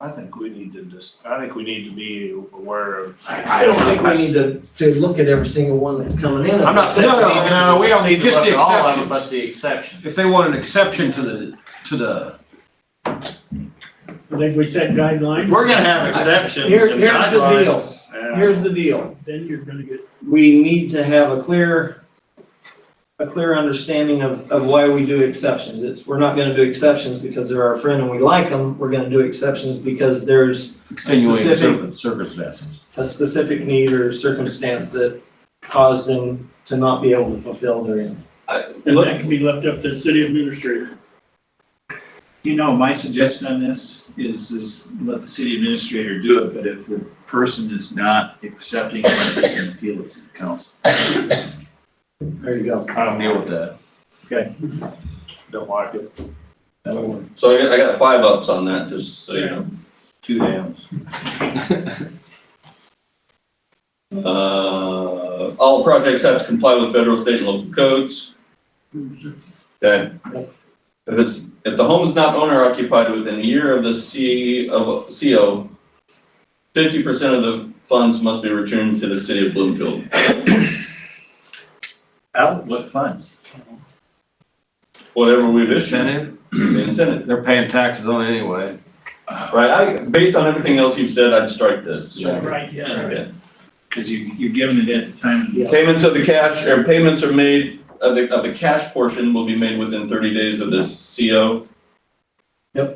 I think we need to just, I think we need to be aware of. I, I don't think we need to, to look at every single one that's coming in. I'm not saying. No, no, no, we don't need to Just look the at all of exceptions. it, But but the exception. if they want an exception to the, to the, I think we set If guidelines, we're gonna have exceptions Here- and here's the deal. guidelines, yeah. here's the deal. then you're gonna get, we need to have a clear, a clear understanding of, of why we do exceptions. It's, we're not gonna do exceptions because they're our friend and we like them. We're gonna do exceptions because there's extenuating Specific- circum- circumstances. a specific need or circumstance that caused them to not be able to fulfill their end. and that can be left up to the city administrator. You know, my suggestion on this is, is let the city administrator do it, but if the person is not accepting, it, they can appeal it to the council. There you go. I don't deal with that. Don't like it. So I got, I got five ups on that, just so you know. Two downs. Uh, all projects have to comply with federal, state, and local codes. Okay. If it's, if the home is not owner occupied within a year of the C of CO, fifty percent of the funds must be returned to the city of Bloomfield. Out, what funds? Whatever we've issued, Incentive, the incentive, they're paying taxes on it anyway. right? I, based on everything else you've said, I'd strike this. Right, yeah. Okay. Because you, you're giving it at the time. of the- Payments of the cash, or payments are made, of the, of the cash portion will be made within thirty days of this CO. Yeah.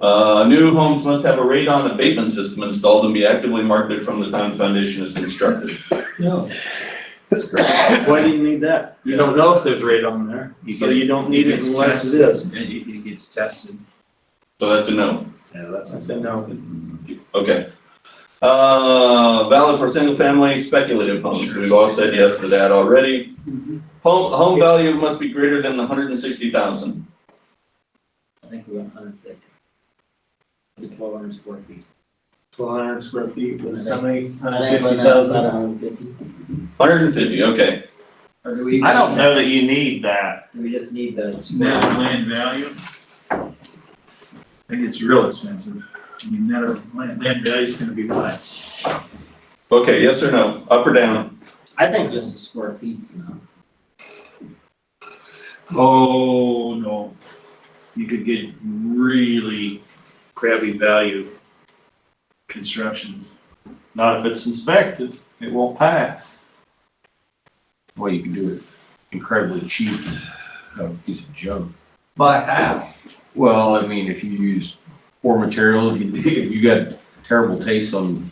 Uh, new homes must have a radon abatement system installed and be actively marketed from the time the foundation is constructed. Why do you need that? You don't know if there's radon there, You So get- you don't need it gets unless it tested, is. and It, it gets tested. So that's a no. yeah, that's. I said no. Okay. Uh, valid for single family speculative homes. We've all said yes to that already. Home, home value must be greater than the hundred and sixty thousand. I think we went hundred fifty. Twelve hundred square feet. Twelve hundred square feet was how many? hundred fifty. Hundred and fifty, okay. Or do we? I don't know that you need that. We just need those. Net land value. I think it's real expensive. I mean, net of land, land value's gonna be high. Okay, yes or no, up or down? I think just the square feet's enough. Oh, no. You could get really crappy value constructions. Not if it's inspected, it won't pass. Well, you can do it incredibly cheap, uh, piece of junk. By half. Well, I mean, if you use poor materials, if you- if you got terrible taste on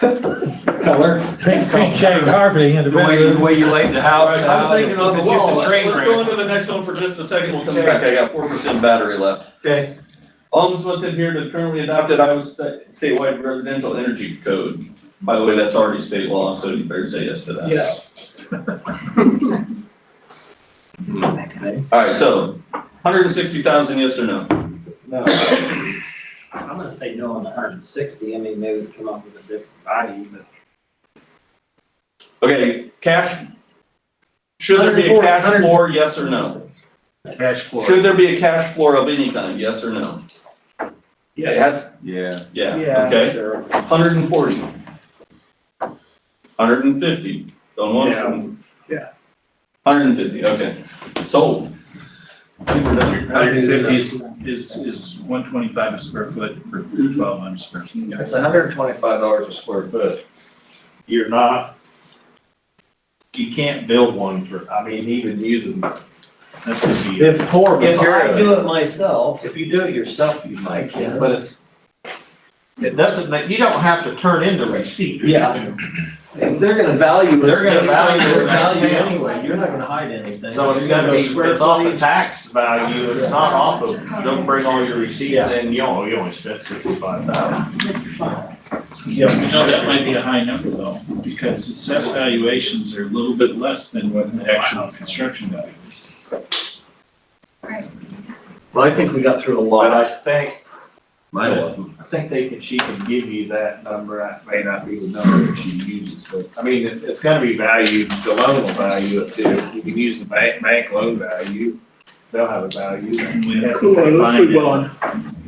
Color. carpeting and the way, the way you laid the house out. I was thinking on the it's just a wall, that's train Let's wreck. go into the next one for just a second. We'll come back. I got four percent battery left. Okay. Homes must adhere to the currently adopted Iowa sta- statewide residential energy code. By the way, that's already state law, so you better say yes to that. Yes. All right, so hundred and sixty thousand, yes or no? No. I'm gonna say no on the hundred and sixty, I mean, maybe we come up with a different body, but. Okay, cash. Should there be a 104, cash 100. floor, yes or no? Cash flow. Should there be a cash floor of any kind, yes or no? It has- Yeah, Yeah, okay, sure. hundred and forty. Hundred and fifty, don't want to. Yeah. Hundred and fifty, okay, sold. I think we're done. Hundred fifty is, is, is one twenty-five a square foot for twelve hundred square feet. hundred and twenty-five dollars a square foot. You're not, you can't build one for, I mean, even using, that's gonna be. If, poor if I do it myself, If you do it yourself, you might, Yeah. but it's, it doesn't make, you don't have to turn in the receipts. Yeah. if they're gonna value it. They're gonna based on value their it. Value anyway, you're not gonna hide anything. So it's You're gonna be, square it's off the footage. tax value, it's not off of, don't bring all your receipts in, you only, you only spent sixty-five thousand. Yeah, you know, that might be a high number though, because assessed valuations are a little bit less than what the actual construction value is. Well, I think we got through a But I lot. think, Mine wasn't. I think they can, she can give you that number, that may not be the number that she uses, but, I mean, it, it's gonna be valued, the loan will value it too. You can use the bank, bank loan value, they'll have a value. And we have to Cool, let's find move it. on.